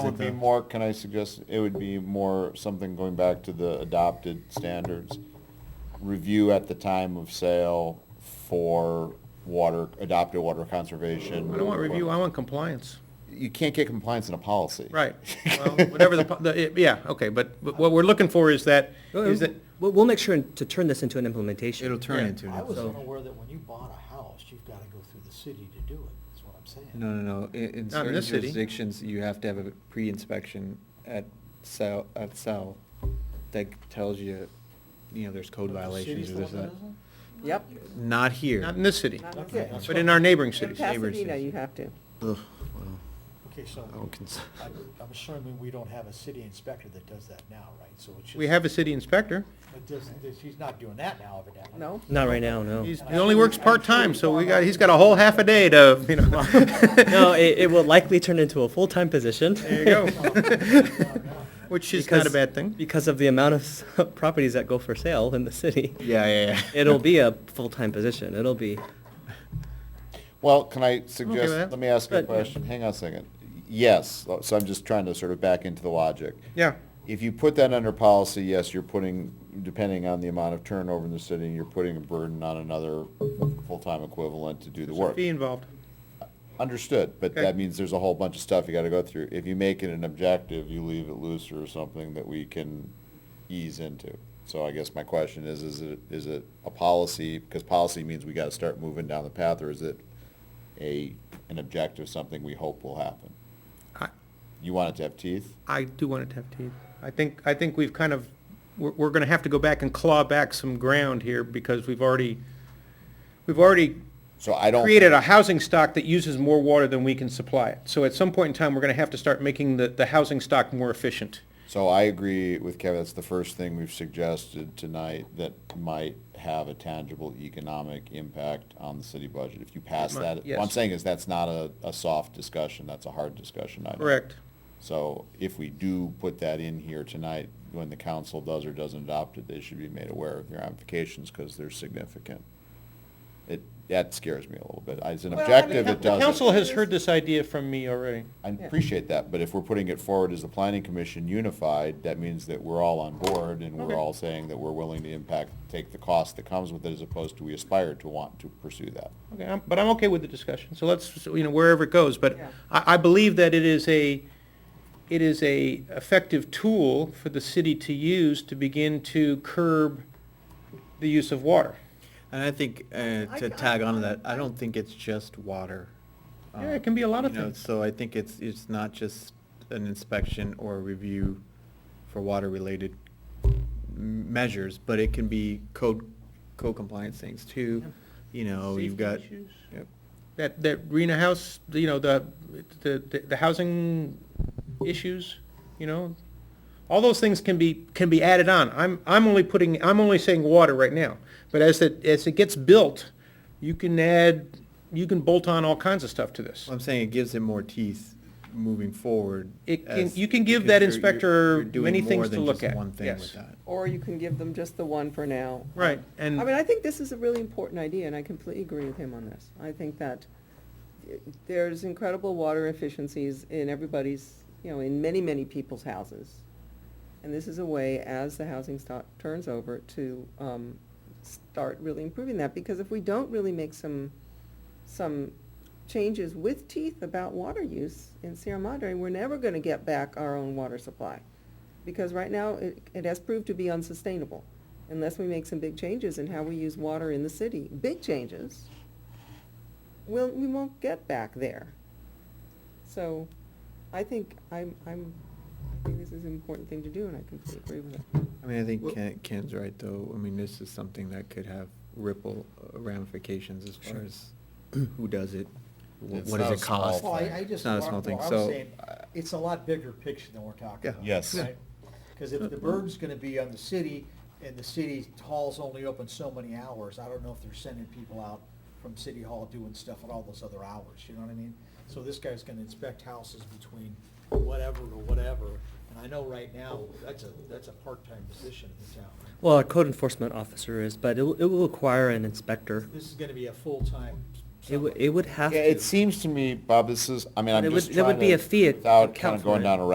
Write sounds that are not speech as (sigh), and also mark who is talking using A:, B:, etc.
A: It would be more, can I suggest, it would be more something going back to the adopted standards. Review at the time of sale for water, adopted water conservation.
B: I don't want review, I want compliance.
A: You can't get compliance in a policy.
C: (laughs)
B: Right. Well, whatever the, po- the, yeah, okay, but, but what we're looking for is that, is that,
D: We'll, we'll make sure to turn this into an implementation.
E: It'll turn
B: Yeah.
E: into, an
F: I was
E: episode.
F: unaware that when you bought a house, you've gotta go through the city to do it, that's what I'm saying.
E: no, no, no, in, in
B: Not in
E: certain
B: this city.
E: jurisdictions, you have to have a pre-inspection at cell, at cell that tells you, you know, there's code
F: But the
E: violations
F: city's
E: or
F: the
E: this,
F: one
E: that.
F: that doesn't?
C: Yep.
E: Not
B: not
E: here,
B: in this city,
C: Not
F: Okay,
C: in
F: that's
B: but
F: what-
B: in our neighboring
C: In
B: cities.
C: Pasadena,
E: cities.
C: you have to.
F: Okay, so
E: I don't cons-
F: I- I'm assuming we don't have a city inspector that does that now, right? So it's just.
B: We have a city inspector.
F: But does, does, he's not doing that now evidently.
C: No?
D: Not right now,
C: Oh.
D: no.
B: He's, he only works part-time, so we got, he's got a whole half a day to, you
C: (laughs)
B: know.
D: (laughs) No, it, it will likely turn into a full-time position.
B: There you go. (laughs) Which is not a
D: Because-
B: bad thing.
D: Because of the amount of (laughs) s- properties that go for sale in the city.
E: (laughs) yeah, yeah, yeah.
D: It'll be a full-time position. It'll be,
A: (laughs) Well, can I
B: with
A: suggest,
B: that.
A: let me ask you a
D: But-
A: question, hang on a second. Yes, so I'm just trying to sort of back into the logic.
B: Yeah.
A: If you put that under policy, yes, you're putting, depending on the amount of turnover in the city, you're putting a burden on another full-time equivalent to do the
B: There's a
A: work.
B: fee involved.
A: Understood, but
B: Okay.
A: that means there's a whole bunch of stuff you gotta go through. If you make it an objective, you leave it loose or something that we can ease into. So I guess my question is, is it, is it a policy, because policy means we gotta start moving down the path, or is it a, an objective, something we hope will happen?
B: I-
A: You want it to have teeth?
B: I do want it to have teeth. I think, I think we've kind of, we're, we're gonna have to go back and claw back some ground here because we've already, we've already
A: So I don't.
B: created a housing stock that uses more water than we can supply it. So at some point in time, we're gonna have to start making the, the housing stock more efficient.
A: So I agree with Kevin, that's the first thing we've suggested tonight that might have a tangible economic impact on the city budget. If you pass
B: might,
A: that, what I'm
B: yes.
A: saying is that's not a, a soft discussion, that's a hard discussion item.
B: Correct.
A: So if we do put that in here tonight, when the council does or doesn't adopt it, they should be made aware of the ramifications because they're significant. It, that scares me a little bit. As an
C: Well, I mean,
A: objective, it
C: the
A: doesn't.
B: Council has heard this idea from me already.
A: I appreciate that, but if we're putting it forward as the planning commission unified, that means that we're all on board and
B: Okay.
A: we're all saying that we're willing to impact, take the cost that comes with it as opposed to we aspire to want to pursue that.
B: Okay, I'm- but I'm okay with the discussion, so let's, you know, wherever it goes, but
C: Yeah.
B: I, I believe that it is a, it is a effective tool for the city to use to begin to curb the use of water.
E: And I think, uh,
C: I-
E: to tag on to that, I don't think it's just water.
B: Yeah, it
E: Um,
B: can be a lot of
E: you know,
B: things.
E: So I think it's, it's not just an inspection or review for water-related m- measures, but it can be code, code compliance things too, you know, you've
B: Safety
E: got.
B: issues?
E: Yep.
B: That, that Rena House, you know, the, the, the- the housing issues, you know, all those things can be, can be added on. I'm, I'm only putting, I'm only saying water right now, but as it, as it gets built, you can add, you can bolt on all kinds of stuff to this.
E: Well, I'm saying it gives him more teeth moving forward.
B: It can-
E: as-
B: you can give
E: because
B: that
E: you're- you're-
B: inspector
E: you're doing
B: many
E: more
B: things to
E: than
B: look
E: just
B: at.
E: one thing with
B: Yes.
E: that.
C: Or you can give them just the one for now.
B: Right, and.
C: I mean, I think this is a really important idea, and I completely agree with him on this. I think that i- there's incredible water efficiencies in everybody's, you know, in many, many people's houses. And this is a way, as the housing stock turns over, to um, start really improving that, because if we don't really make some, some changes with teeth about water use in Sierra Madre, we're never gonna get back our own water supply. Because right now, it, it has proved to be unsustainable unless we make some big changes in how we use water in the city, big changes, we'll, we won't get back there. So I think I'm, I'm, I think this is an important thing to do and I completely agree with it.
E: I mean, I think
B: Well-
E: Ken, Ken's right, though. I mean, this is something that could have ripple uh, ramifications as far
B: Sure.
E: as who does it, wh-
A: It's
E: what does
A: not
E: it
A: a small
E: cost.
A: thing.
F: Well, I, I
E: Oh, It's
F: just,
E: not a small
F: well,
E: thing,
F: I'm
E: so. uh,
F: saying, it's a lot bigger picture than we're talking
E: Yeah.
F: about.
A: Yes. Yeah.
F: Because if the burden's gonna be on the city, and the city hall's only open so many hours, I don't know if they're sending people out from city hall doing stuff at all those other hours, you know what I mean? So this guy's gonna inspect houses between whatever to whatever, and I know right now, that's a, that's a part-time position in the town.
D: well, a code enforcement officer is, but it, will- it will require an inspector.
F: This is gonna be a full-time.
D: It would, it would have to.
A: Yeah, it seems to me, Bob, this is, I mean,
D: It
A: I'm
D: would-
A: just
D: there would
A: trying
D: be
A: to-
D: a fee to
A: Without kind
D: account
A: of
D: for
A: going
D: it.
A: down a